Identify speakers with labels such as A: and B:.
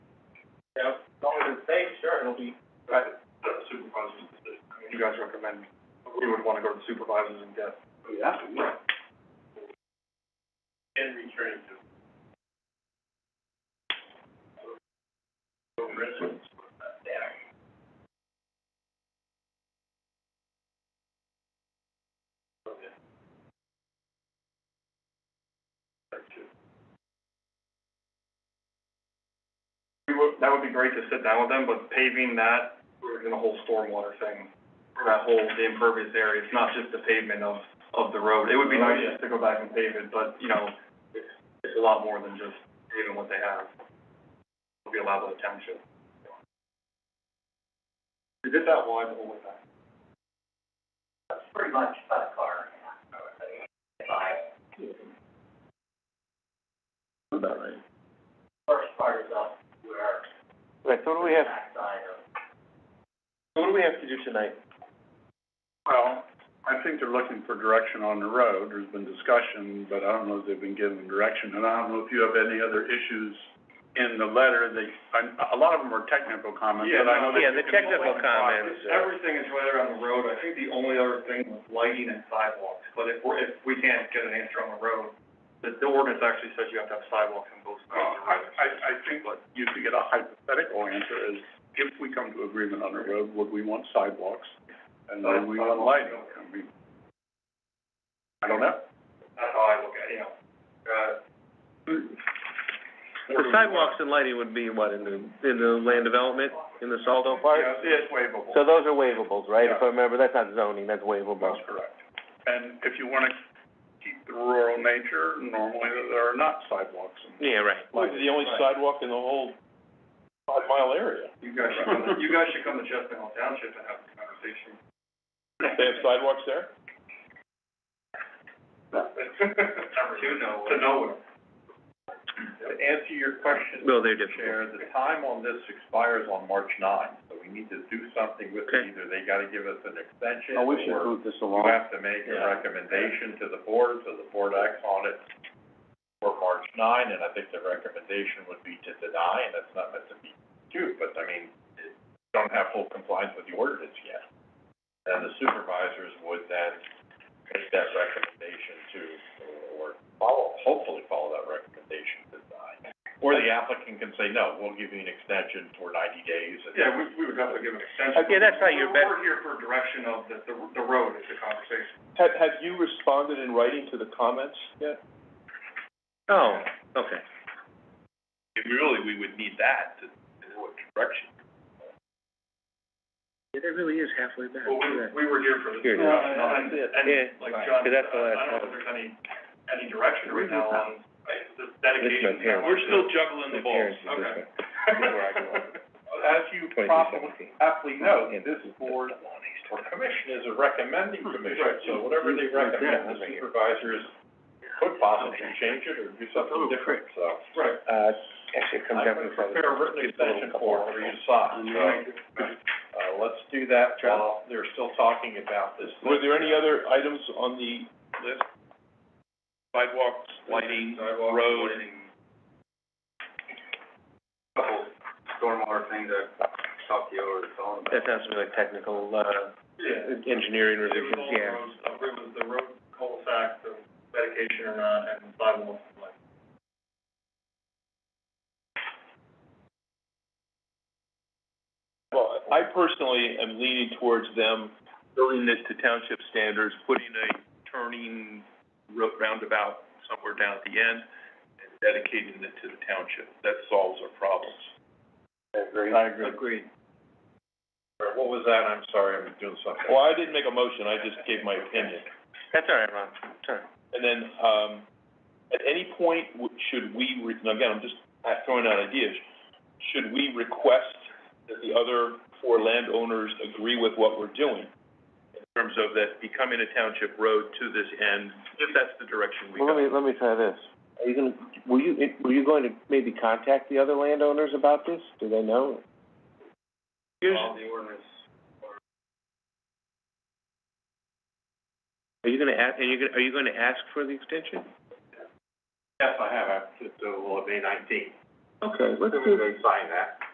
A: Yeah, as long as it's safe, sure, it'll be.
B: Right, the supervisor's decision. I mean, you guys recommend, we would wanna go to the supervisors and get.
A: Yeah.
B: Right.
A: And returning to. Residents.
B: We would, that would be great to sit down with them, but paving that, we're in the whole stormwater thing. For that whole, the impervious area, it's not just the pavement of, of the road. It would be
A: Oh,
B: nice
A: yeah.
B: just to go back and pave it, but, you know, it's, it's a lot more than just paving what they have. It'll be allowed by the township. Is it that wide the whole way back?
A: Pretty much about a car. Five,
B: About right.
A: first part is up where.
B: Right, so what do we have,
A: Side of.
B: so what do we have to do tonight?
C: Well, I think they're looking for direction on the road, there's been discussion, but I don't know if they've been given direction, and I don't know if you have any other issues in the letter, they, I, a lot of them are technical comments, but I know that
D: Yeah,
C: you
D: the
C: can-
D: technical comments, uh,
B: Everything is right there on the road, I think the only other thing was lighting and sidewalks, but if we're, if we can't get an answer on the road, the, the ordinance actually says you have to have sidewalks in both
C: Uh,
D: Oh,
B: sides of the
C: I,
B: road.
C: I, I think what you could get a hypothetical answer is, if we come to agreement on the road, would we want sidewalks? And would we want lighting, I mean, I don't know.
B: That's how I look at it, you know, uh.
D: The sidewalks
C: uh,
D: and lighting would be what, in the, in the land development, in the Saldo part?
C: Yeah, it's waivable.
D: So those are waivables, right? If
C: Yeah.
D: I remember, that's not zoning, that's waivable.
C: That's correct. And if you wanna keep the rural nature, normally there are not sidewalks and.
D: Yeah, right.
C: the only sidewalk in the whole five mile area.
B: You guys should come, you guys should come to Chestnut Hill Township and have this conversation.
C: They have sidewalks there?
B: To nowhere. To nowhere.
C: To answer your question,
D: Well, they're different.
C: Chair, the time on this expires on March ninth, so we need to do something with it.
D: Okay.
C: Either they gotta give us an extension
E: Oh, we should
C: or
E: move this
C: you
E: along.
C: have to make a
E: Yeah.
C: recommendation to the board, so the board acts on it for March nine, and I think the recommendation would be to deny, and that's not meant to be cute, but I mean, it- you don't have full compliance with the ordinance yet. And the supervisors would then make that recommendation to, or follow, hopefully follow that recommendation to deny. Or the applicant can say, no, we'll give you an extension for ninety days and.
B: Yeah, we, we would have to give an extension.
D: Okay, that's how you're bet-
B: We're we're here for direction of the, the, the road is the conversation.
C: Have, have you responded in writing to the comments yet?
D: Oh, okay.
C: Really, we would need that to, to what direction.
D: It really is halfway back.
B: Well, we, we were here for this.
D: Here it is.
B: discussion,
C: Yeah,
B: and-
C: that's
B: And,
D: Yeah,
B: like
C: right,
B: John,
D: 'cause
B: said,
D: that's
B: I
D: the last
B: I don't know if there's any, any direction right now on, like, the dedication.
D: my parents. We're still
B: juggling
D: the balls. My parents
B: Okay.
D: did That's where I grew up.
C: As you
D: Twenty-two
C: probably
D: seventeen.
C: aptly know,
D: And-
C: this board or commission is a recommending commission, so whatever they recommend, the supervisors could possibly change it or do something different, so.
B: Right.
D: Uh, actually, it comes
C: I'm
D: down to
C: gonna
D: the
C: prepare a written extension form for you to sign, so, uh, let's do that while they're still talking about this.
E: Were there any other items on the list? Sidewalks, lighting, road.
B: Couple stormwater things that talked to you over the phone
D: That sounds to me like technical, uh,
B: Yeah.
D: engineering
B: It was
D: revisions,
B: all
D: yeah.
B: roads, uh, it was the road cul-de-sac, the dedication or not, and sidewalks, like.
E: Well, I personally am leaning towards them building this to township standards, putting a turning ro- roundabout somewhere down at the end and dedicating it to the township. That solves our problems.
C: I agree. Agreed. What was that? I'm sorry, I'm doing something.
E: Well, I didn't make a motion, I just gave my opinion.
D: That's all right, Ron, it's all right.
E: And then, um, at any point, w- should we, re- now again, I'm just uh, throwing out ideas, should we request that the other four landowners agree with what we're doing? In terms of that becoming a township road to this end, if that's the direction we
D: Well, let me,
E: go.
D: let me try this. Are you gonna, were you, were you going to maybe contact the other landowners about this? Do they know?
B: All the ordinance.
D: Are you gonna ask, are you gonna, are you gonna ask for the extension?
C: Yes, I have, I, so it will be nineteen,
D: Okay, let's
C: they sign that.